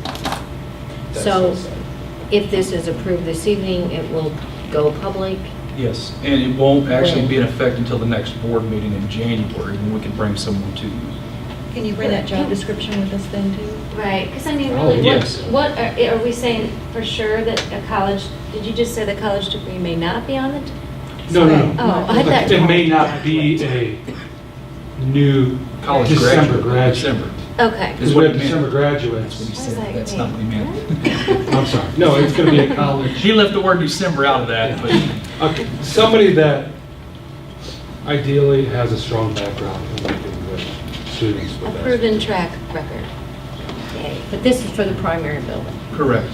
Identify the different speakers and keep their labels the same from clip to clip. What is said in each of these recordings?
Speaker 1: That's
Speaker 2: So
Speaker 1: inside.
Speaker 2: if this is approved this evening, it will go public.
Speaker 3: Yes, and it won't actually be in
Speaker 2: When?
Speaker 3: effect until the next board meeting in January, when we can bring someone to you.
Speaker 4: Can you bring that job description with us then too?
Speaker 5: Right, because I mean,
Speaker 1: Oh,
Speaker 5: really, what,
Speaker 3: yes.
Speaker 5: what, are are we saying for sure that a college, did you just say the college degree may not be on it?
Speaker 6: No, no, no.
Speaker 5: Oh, I thought-
Speaker 6: It may not be a new
Speaker 3: College
Speaker 6: December
Speaker 3: graduate.
Speaker 6: graduate.
Speaker 5: Okay.
Speaker 3: Is
Speaker 6: Because
Speaker 3: what
Speaker 6: we
Speaker 3: it
Speaker 6: have
Speaker 3: meant.
Speaker 6: December
Speaker 3: That's what he
Speaker 6: graduates.
Speaker 5: I was
Speaker 3: said,
Speaker 5: like,
Speaker 3: that's not what he
Speaker 5: wait,
Speaker 3: meant.
Speaker 5: what?
Speaker 6: I'm sorry. No, it's going to be a college.
Speaker 3: He left the word December out of that, but
Speaker 6: Okay, somebody that ideally has a strong background in working with students
Speaker 5: A
Speaker 6: with that.
Speaker 5: proven track record. Yay.
Speaker 2: But this is for the primary building.
Speaker 3: Correct.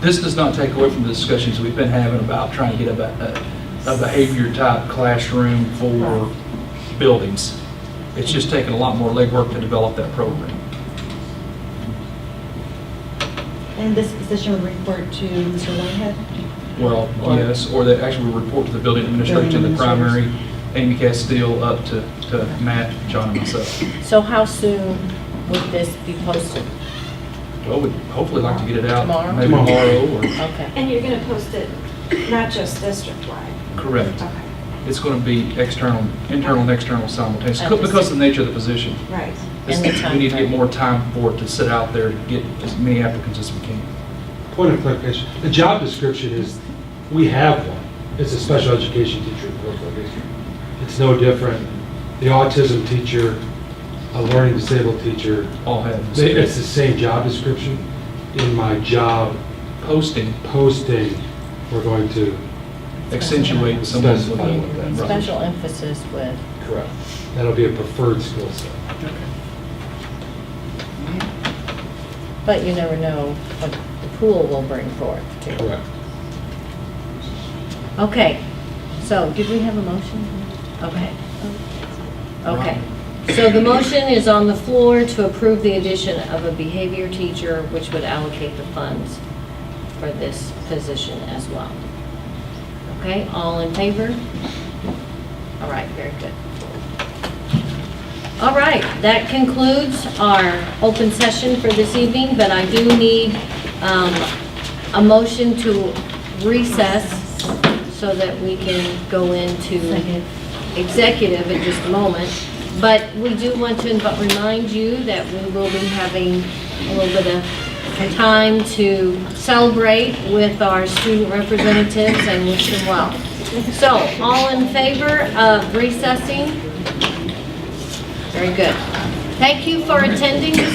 Speaker 3: This does not take away from the discussions we've been having about trying to get a ba- a a behavior-type classroom for buildings. It's just taking a lot more legwork to develop that program.
Speaker 4: And this position would report to Mr. Whitehead?
Speaker 3: Well, yes, or they actually report to the building administrator, to the primary, Amy Castile, up to to Matt, John, and myself.
Speaker 2: So how soon would this be posted?
Speaker 3: Well, we'd hopefully like to get it out
Speaker 2: Tomorrow?
Speaker 3: maybe
Speaker 6: Tomorrow.
Speaker 3: tomorrow
Speaker 2: Okay.
Speaker 7: And you're going to post it not just district-wide?
Speaker 3: or, correct.
Speaker 7: Okay,
Speaker 3: It's going to be external, internal and external simultaneously, because of the nature of the position.
Speaker 7: right.
Speaker 2: And the
Speaker 3: We need to get
Speaker 2: timeframe.
Speaker 3: more time for it to sit out there, to get as many applicants as we can.
Speaker 6: Point of clarification, the job description is, we have one. It's a special education teacher in Brooklyn. It's no different. The autism teacher, a learning disabled teacher,
Speaker 3: All have
Speaker 6: They- It's the
Speaker 3: this
Speaker 6: same job description. In my job
Speaker 3: posting,
Speaker 6: posting, we're going to.
Speaker 3: accentuate someone's.
Speaker 6: Specify what that means.
Speaker 3: Right.
Speaker 2: Special emphasis with,
Speaker 6: Correct. That'll be a preferred skill set.
Speaker 2: but you never know what the pool will bring forth. too.
Speaker 6: Correct.
Speaker 2: Okay, so did we have a motion? Okay. Okay. So the motion is on the floor to approve the addition of a behavior teacher, which would allocate the funds for this position as well. Okay, all in favor? All right, very good. All right, that concludes our open session for this evening, but I do need um, a motion to recess so that we can go into
Speaker 4: Second.
Speaker 2: executive in just a moment. But we do want to inv- remind you that we will be having a little bit of time to celebrate with our student representatives and wish them well. So, all in favor of recessing? Very good. Thank you for attending this